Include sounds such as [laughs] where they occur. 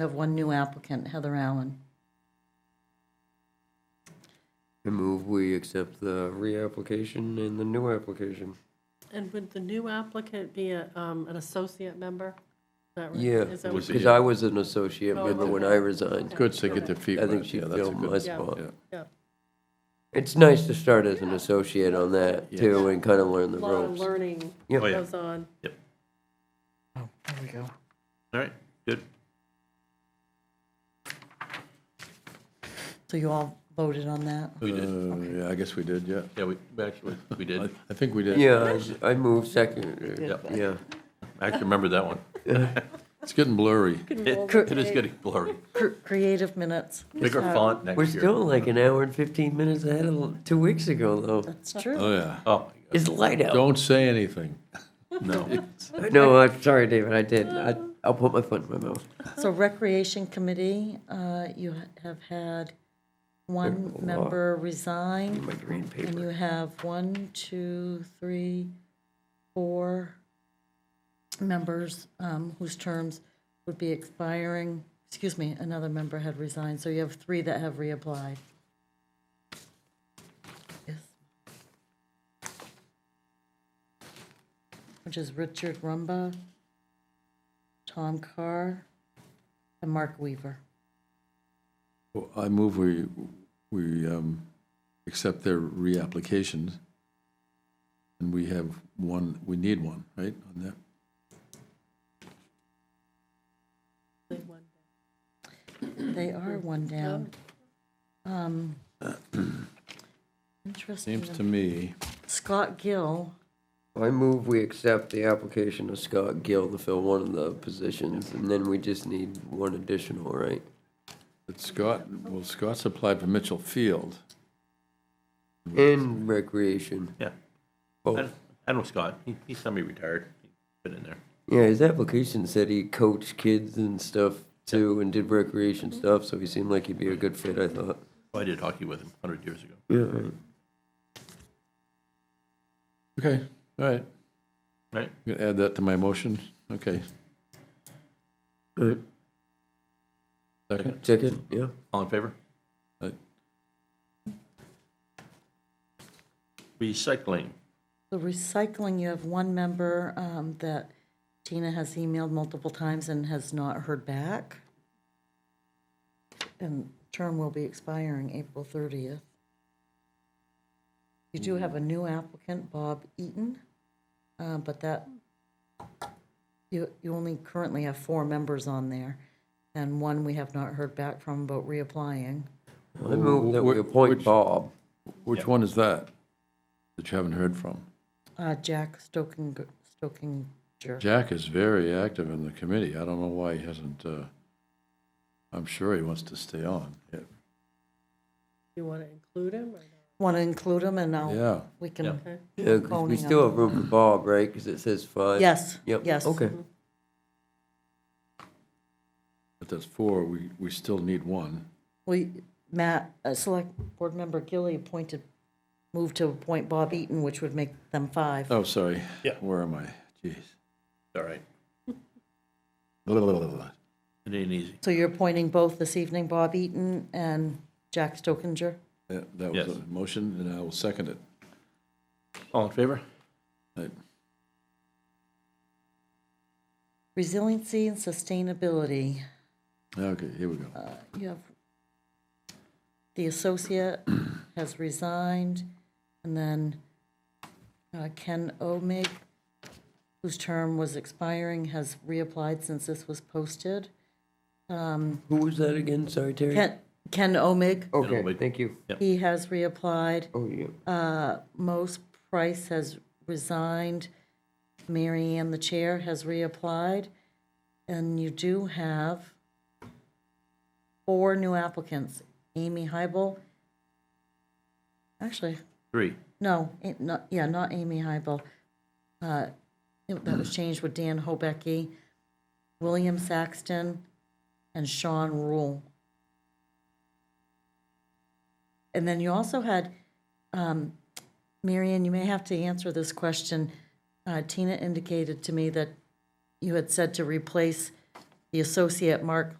We have one new applicant, Heather Allen. I move we accept the reapplication and the new application. And would the new applicant be a, um, an associate member? Is that right? Yeah, Is that Was what- it- because I was an associate Oh, member when okay. I resigned. Good to get their feet I wet. think she Yeah, that's a filled good- my spot. yeah. Yeah, It's nice to start as an associate on that too and kind of learn the a lot of ropes. learning Yeah. Oh, yeah. goes on. Yep. Oh, there we go. All right, good. So you all voted on that? We did. Uh, Yeah, I guess we did, yeah. Yeah, we, we actually, we I did. I think we did. Yeah, I- I moved second, Yep. yeah. I actually remember that one. It's getting blurry. It roll the it is getting blurry. Cr- Creative minutes. Bigger font next year. We're still like an hour and 15 minutes ahead of two weeks ago though. It's true. Oh, yeah. Oh, It's light out. Don't say anything. no. No, I'm sorry, David, I did. I- I'll put my foot in my mouth. So Recreation Committee, uh, you ha- have had one There's a lot. member resign. My green And you paper. have one, two, three, four members um, whose terms would be expiring. Excuse me, another member had resigned, so you have three that have reapplied. Yes. Which is Richard Rumba, Tom Carr, and Mark Weaver. [laughs] Well, I move we, we um, accept their reapplications. And we have one, we need one, right, on that? They are one down. Um, Interesting. Seems to me, Scott Gill, I move we accept the application of Scott Gill to fill one of the positions and then we just need one additional, right? that Scott, well, Scott's applied for Mitchell Field. And recreation. Yeah. I Oh, don't- I know Scott. He- He's semi-retired. He's Been in there. yeah, his application said he coached kids and stuff too and did Mm-hmm. recreation stuff, so he seemed like he'd be a good fit, I thought. I did hockey with him 100 years ago. Yeah, right. Okay, all right. Right? I'm gonna add that to my motion. Okay. Right. Second? Second, yeah. All in favor? Aye. Recycling. the recycling, you have one member um, that Tina has emailed multiple times and has not heard back. And term will be expiring April 30th. You do have a new applicant, Bob Eaton, uh, but that, you, you only currently have four members on there, and one we have not heard back from about reapplying. I move that we Wh- appoint which- Bob. Which one is that, that you haven't heard from? Uh, Jack Stoking, Stokinger. Jack is very active in the committee. I don't know why he hasn't, uh, I'm sure he wants to stay on. Yeah. You want to include him or not? Want to include him, and now Yeah, we can Okay. Yeah, 'cause we Boning still have room for Bob, right? Because it says five. uh-huh. Yes, Yep. yes. Okay. but that's four, we, we still need one. We, Matt, uh, Select Board Member Gilly appointed, moved to appoint Bob Eaton, which would make them five. Oh, sorry. Yeah. Where am I? Jeez. All right. Blah, blah, blah, blah, blah. It ain't easy. So you're appointing both this evening, Bob Eaton and Jack Stokinger? That that was Yes. a motion, and I will second it. All in favor? Right. Resiliency and Sustainability, Okay, here we go. uh, you have, the associate has resigned, and then uh, Ken Omig, whose term was expiring, has reapplied since this was posted. Who was that again? Sorry, Terry? Ken, Ken Omig, Okay, Omid. thank you. he has reapplied. Oh, yeah. Most Price has resigned. Mary Ann, the chair, has reapplied. And you do have four new applicants. Amy Hybel. Actually, Three. no, eh, not, yeah, not Amy Hybel. Uh, it- That was changed with Dan Hobecky, William Saxton, and Sean Rule. And then you also had, um, Mary Ann, you may have to answer this question. Uh, Tina indicated to me that you had said to replace the associate Mark